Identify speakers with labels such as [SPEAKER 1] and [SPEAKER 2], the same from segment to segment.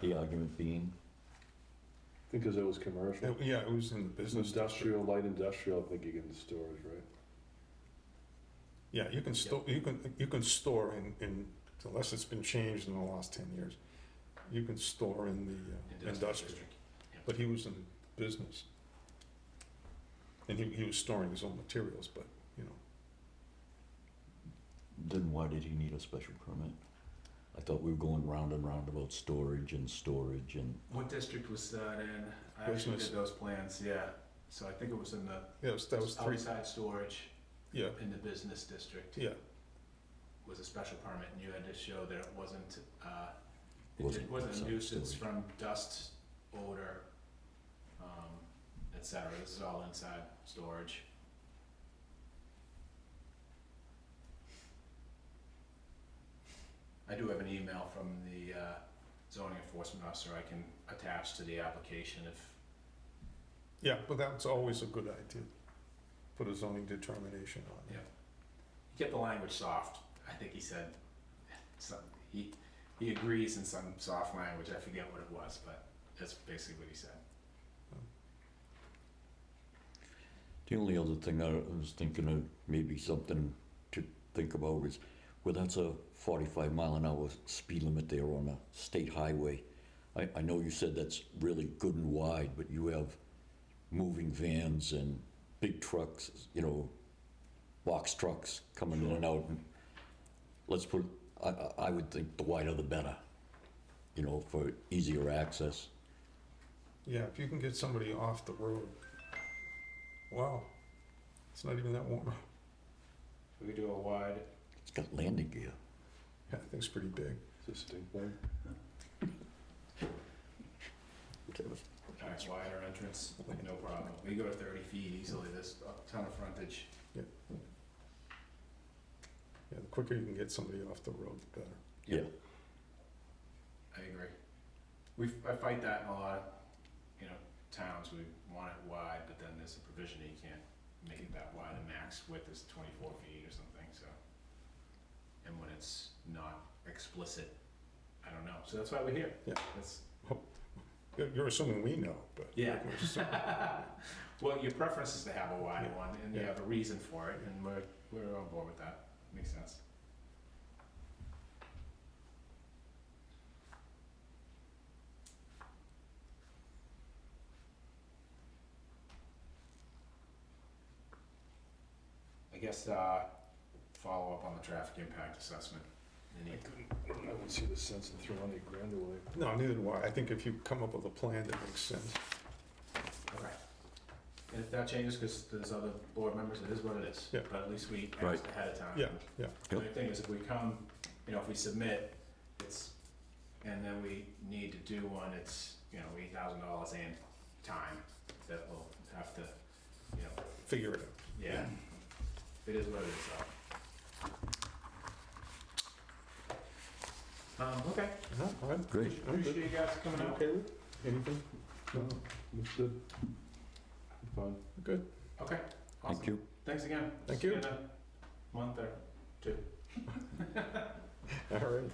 [SPEAKER 1] The argument being,
[SPEAKER 2] I think because it was commercial.
[SPEAKER 3] It- Yeah, it was in the business district.
[SPEAKER 2] Industrial, light industrial, I think you get into storage, right?
[SPEAKER 3] Yeah, you can store, you can, you can store in, in, unless it's been changed in the last ten years, you can store in the uh, industrial. But he was in business. And he, he was storing his own materials, but, you know,
[SPEAKER 1] then why did he need a special permit? I thought we were going round and round about storage and storage and,
[SPEAKER 4] What district was that in? I actually
[SPEAKER 3] Business.
[SPEAKER 4] did those plans, yeah. So I think it was in the
[SPEAKER 3] yeah, it was- that was three,
[SPEAKER 4] outside storage
[SPEAKER 3] yeah,
[SPEAKER 4] in the business district
[SPEAKER 3] yeah,
[SPEAKER 4] was a special permit and you had to show that it wasn't, uh, it
[SPEAKER 1] Wasn't
[SPEAKER 4] did- wasn't a
[SPEAKER 1] outside
[SPEAKER 4] nuisance
[SPEAKER 1] storage.
[SPEAKER 4] from dust, odor, um, et cetera. This is all inside storage. I do have an email from the uh, zoning enforcement officer I can attach to the application if
[SPEAKER 3] yeah, but that's always a good idea. Put a zoning determination on it.
[SPEAKER 4] kept the language soft. I think he said some, he he agrees in some soft language. I forget what it was, but that's basically what he said.
[SPEAKER 1] the only other thing I was thinking of, maybe something to think about is, well, that's a forty-five mile an hour speed limit there on a state highway. I, I know you said that's really good and wide, but you have moving vans and big trucks, you know, box trucks coming in and out. And Let's put, I, I- I would think the wider the better, you know, for easier access.
[SPEAKER 3] Yeah, if you can get somebody off the road, wow, it's not even that warm.
[SPEAKER 4] We could do a wide.
[SPEAKER 1] It's got landing gear.
[SPEAKER 3] Yeah, I think it's pretty big.
[SPEAKER 2] It's a stink bug.
[SPEAKER 4] All right, wider entrance, no problem. We go to thirty feet easily. There's a ton of frontage.
[SPEAKER 3] Yeah, the quicker you can get somebody off the road, the better.
[SPEAKER 1] Yeah.
[SPEAKER 4] I agree. We f- I fight that in a lot of you know towns. We want it wide, but then there's a provision that you can't make it that wide. The max width is twenty four feet or something. So, and when it's not explicit, I don't know. So that's why we're here.
[SPEAKER 3] Yeah.
[SPEAKER 4] That's
[SPEAKER 3] You're- You're assuming we know, but.
[SPEAKER 4] Yeah. well, your preference is to have a wide one, and you
[SPEAKER 3] Yeah.
[SPEAKER 4] have a reason for it, and we're we're on board with that. Makes sense. I guess uh, follow up on the traffic impact assessment.
[SPEAKER 2] I
[SPEAKER 4] Any
[SPEAKER 2] couldn't, I wouldn't see the sense in throwing eight grand away.
[SPEAKER 3] No, neither do I. I think if you come up with a plan that makes sense,
[SPEAKER 4] Okay. And if that changes, because there's other board members, it is what it is.
[SPEAKER 3] Yeah.
[SPEAKER 4] But at least we
[SPEAKER 1] Right.
[SPEAKER 4] asked ahead of time.
[SPEAKER 3] yeah, yeah,
[SPEAKER 4] The only thing is if we come, you know, if we submit, it's, and then we need to do one, it's, you know, eight thousand dollars and time that we'll have to, you know,
[SPEAKER 3] figure it out.
[SPEAKER 4] yeah. It is what it is, so. Um, okay,
[SPEAKER 3] Uh-huh, All right,
[SPEAKER 1] Great.
[SPEAKER 3] I'm good.
[SPEAKER 4] appreciate you guys coming out.
[SPEAKER 2] Okay, Luke?
[SPEAKER 3] Anything?
[SPEAKER 2] No, looks good. I'm Fine.
[SPEAKER 3] Good.
[SPEAKER 4] Okay,
[SPEAKER 1] Thank
[SPEAKER 4] awesome.
[SPEAKER 1] you.
[SPEAKER 4] Thanks again.
[SPEAKER 3] Thank
[SPEAKER 4] See
[SPEAKER 3] you.
[SPEAKER 4] in a Month or two.
[SPEAKER 3] All right.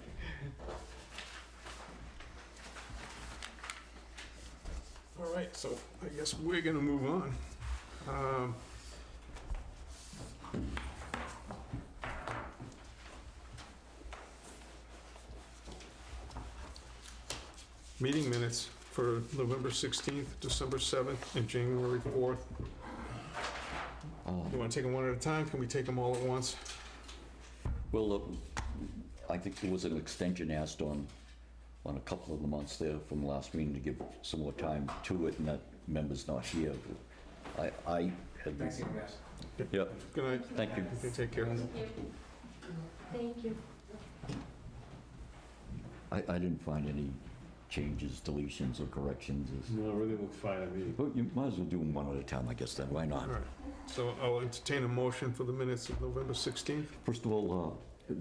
[SPEAKER 3] All right, so I guess we're gonna move on. Um, Meeting minutes for November 16th, December 7th, and January 4th.
[SPEAKER 1] Uh,
[SPEAKER 3] You wanna take them one at a time? Can we take them all at once?
[SPEAKER 1] Well, um, I think there was an extension asked on, on a couple of the months there from last meeting to give some more time to it, and that member's not here. I, I had.
[SPEAKER 4] Thanks again, guys.
[SPEAKER 1] Yeah,
[SPEAKER 3] Good night.
[SPEAKER 1] thank you.
[SPEAKER 3] Okay, take care.
[SPEAKER 5] Thank you.
[SPEAKER 1] I, I didn't find any changes, deletions, or corrections. It's-
[SPEAKER 2] No, everything looked fine to me.
[SPEAKER 1] But you might as well do them one at a time, I guess, then, why
[SPEAKER 3] All
[SPEAKER 1] not?
[SPEAKER 3] right, so I'll entertain a motion for the minutes of November 16th.
[SPEAKER 1] First of all, uh,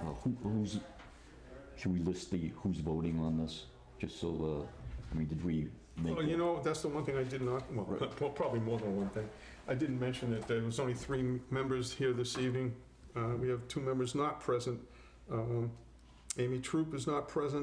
[SPEAKER 1] uh, who- who's, should we list the, who's voting on this? Just so, uh, I mean, did we make?
[SPEAKER 3] Well, you know, that's the one thing I did not, well,
[SPEAKER 1] Right.
[SPEAKER 3] well, probably more than one thing. I didn't mention that there was only three members here this evening. Uh, We have two members not present. Um, Amy Troop is not present,